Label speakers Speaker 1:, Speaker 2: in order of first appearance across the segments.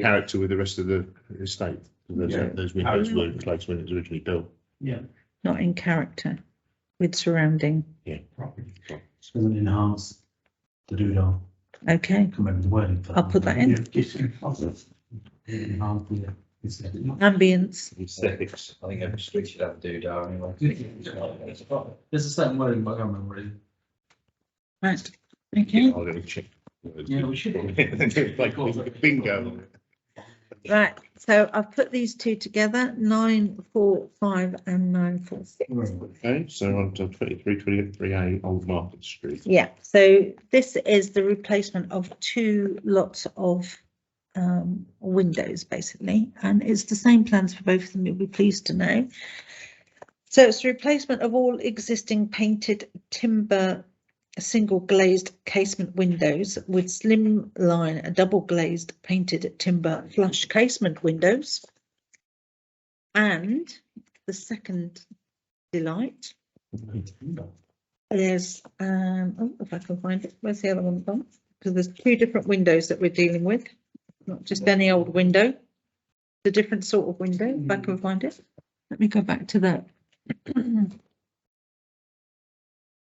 Speaker 1: character with the rest of the estate. Those,
Speaker 2: Yeah.
Speaker 1: those windows were in place when it was originally built.
Speaker 2: Yeah,
Speaker 3: not in character with surrounding.
Speaker 2: property. Doesn't enhance the doodle.
Speaker 3: Okay,
Speaker 2: Come over the wording. for
Speaker 3: I'll put that in.
Speaker 2: Yeah, just enhance the- enhance the aesthetic.
Speaker 3: ambience.
Speaker 1: Aesthetics.
Speaker 4: I think every street should have a doodah anyway.
Speaker 2: There's a certain wording, but I can't remember what it is.
Speaker 3: Right. Okay.
Speaker 1: I'll go and check.
Speaker 2: Yeah, we should.
Speaker 1: Like bingo.
Speaker 3: Right. So I've put these two together: nine four five and nine four six.
Speaker 1: Okay, so on to twenty-three, twenty-three A, Old Market Street.
Speaker 3: Yeah. So this is the replacement of two lots of um, windows, basically, and it's the same plans for both of them. You'll be pleased to know. So it's the replacement of all existing painted timber single glazed casement windows with slim line double glazed painted timber flush casement windows. And the second delight there's, um, oh, if I can find it, where's the other one gone? Because there's two different windows that we're dealing with, not just any old window. It's a different sort of window, if I can find it. Let me go back to that. And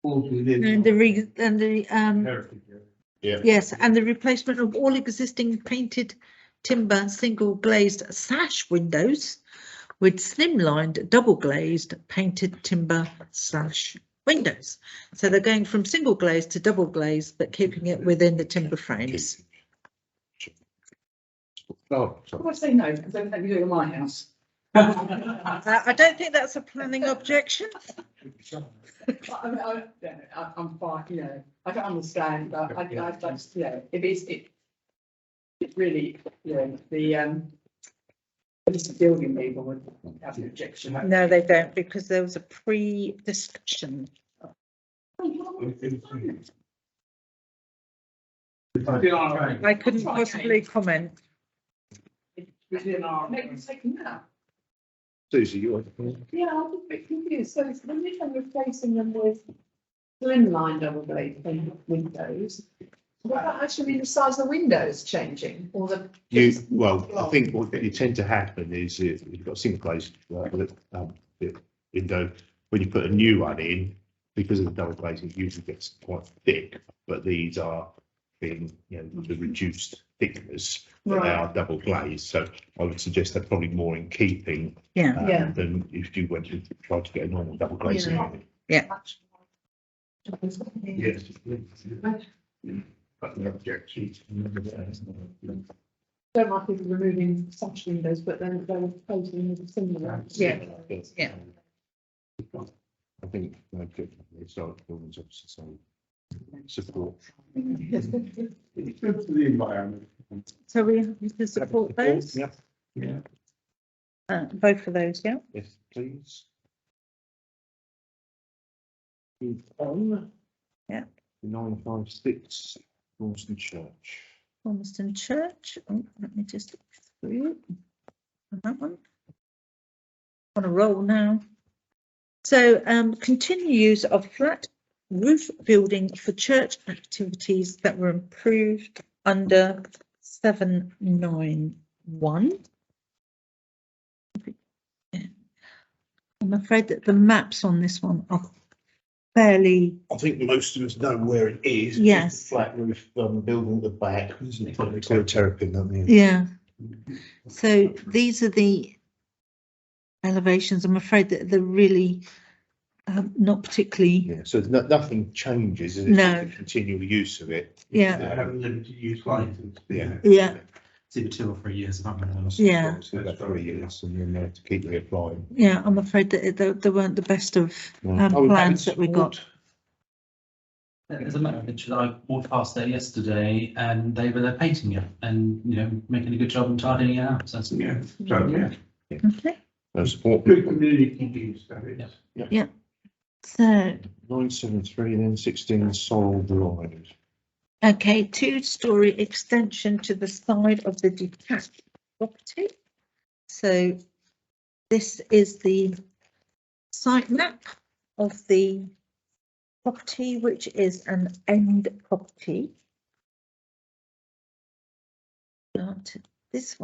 Speaker 2: All within-
Speaker 3: the re, and the, um,
Speaker 2: Heritage, yeah.
Speaker 3: Yes, and the replacement of all existing painted timber single glazed sash windows with slimlined double glazed painted timber sash windows. So they're going from single glazed to double glazed, but keeping it within the timber frames.
Speaker 1: Oh, sorry.
Speaker 5: I say no, because they let me do it in my house.
Speaker 3: Uh, I don't think that's a planning objection.
Speaker 5: But I, I, yeah, I- I'm fine, you know, I don't understand, but I, I just, you know, if it's, it. It really, you know, the, um. It's building people would have an objection.
Speaker 3: No, they don't, because there was a pre-discussion. I couldn't possibly comment.
Speaker 5: Within our. Maybe taken that.
Speaker 1: Susie, you want?
Speaker 5: Yeah, I'm a bit confused. So it's when they are replacing them with slimline double glazed windows, what about actually the size of the windows changing or the?
Speaker 1: You, well, I think what you tend to happen is you- you've got single glazed uh, um, window. When you put a new one in, because of the double glazing, it usually gets quite thick, but these are being, you know, the reduced thickness. But they
Speaker 5: Right.
Speaker 1: are double glazed, so I would suggest they're probably more in keeping
Speaker 3: Yeah,
Speaker 1: um,
Speaker 5: Yeah.
Speaker 1: than if you went to try to get a normal double glazing.
Speaker 5: Yeah.
Speaker 1: one.
Speaker 5: Yeah.
Speaker 1: But the objection.
Speaker 5: Don't mind people removing such windows, but then they're replacing with similar.
Speaker 3: Yeah. Yeah.
Speaker 1: I think, uh, good, it's not, it's obviously, so, support.
Speaker 2: It's good for the environment.
Speaker 3: so we have to support those,
Speaker 1: Yeah,
Speaker 2: Yeah.
Speaker 3: uh, both of those, yeah.
Speaker 1: yes, please. Move on.
Speaker 3: Yeah.
Speaker 1: Nine five six, Ormston Church.
Speaker 3: Ormiston Church, oh, let me just look through it. And that one. On a roll now. So, um, continue use of flat roof building for church activities that were improved under seven nine one. I'm afraid that the maps on this one are fairly,
Speaker 1: I think most of us know where it is.
Speaker 3: Yes.
Speaker 1: Flat roof, um, building at the back, isn't it? Probably called terrapin, don't they?
Speaker 3: yeah. So these are the elevations. I'm afraid that they're really um, not particularly,
Speaker 1: Yeah, so no, nothing changes, is it?
Speaker 3: No.
Speaker 1: Just the Continual use of it.
Speaker 3: yeah,
Speaker 2: I haven't lived to use license.
Speaker 1: Yeah.
Speaker 3: yeah,
Speaker 2: It's either two or three years, I can't remember.
Speaker 3: Yeah.
Speaker 1: So that's three years, and then they have to keep reapplying.
Speaker 3: yeah. I'm afraid that it- they, they weren't the best of
Speaker 1: Yeah.
Speaker 3: um,
Speaker 1: Oh,
Speaker 3: plans that we
Speaker 1: Hammond
Speaker 3: got.
Speaker 6: There's a matter of pictures. I walked past there yesterday and they were there painting it and, you know, making a good job and tidying it up. So that's
Speaker 2: Yeah, so, yeah,
Speaker 3: Okay,
Speaker 1: Uh, Support.
Speaker 2: good community use, that is.
Speaker 3: so,
Speaker 1: Nine seven three, then sixteen Sorrel Drive.
Speaker 3: okay, two-story extension to the side of the detached property. So this is the site map of the property, which is an end property. Not this one.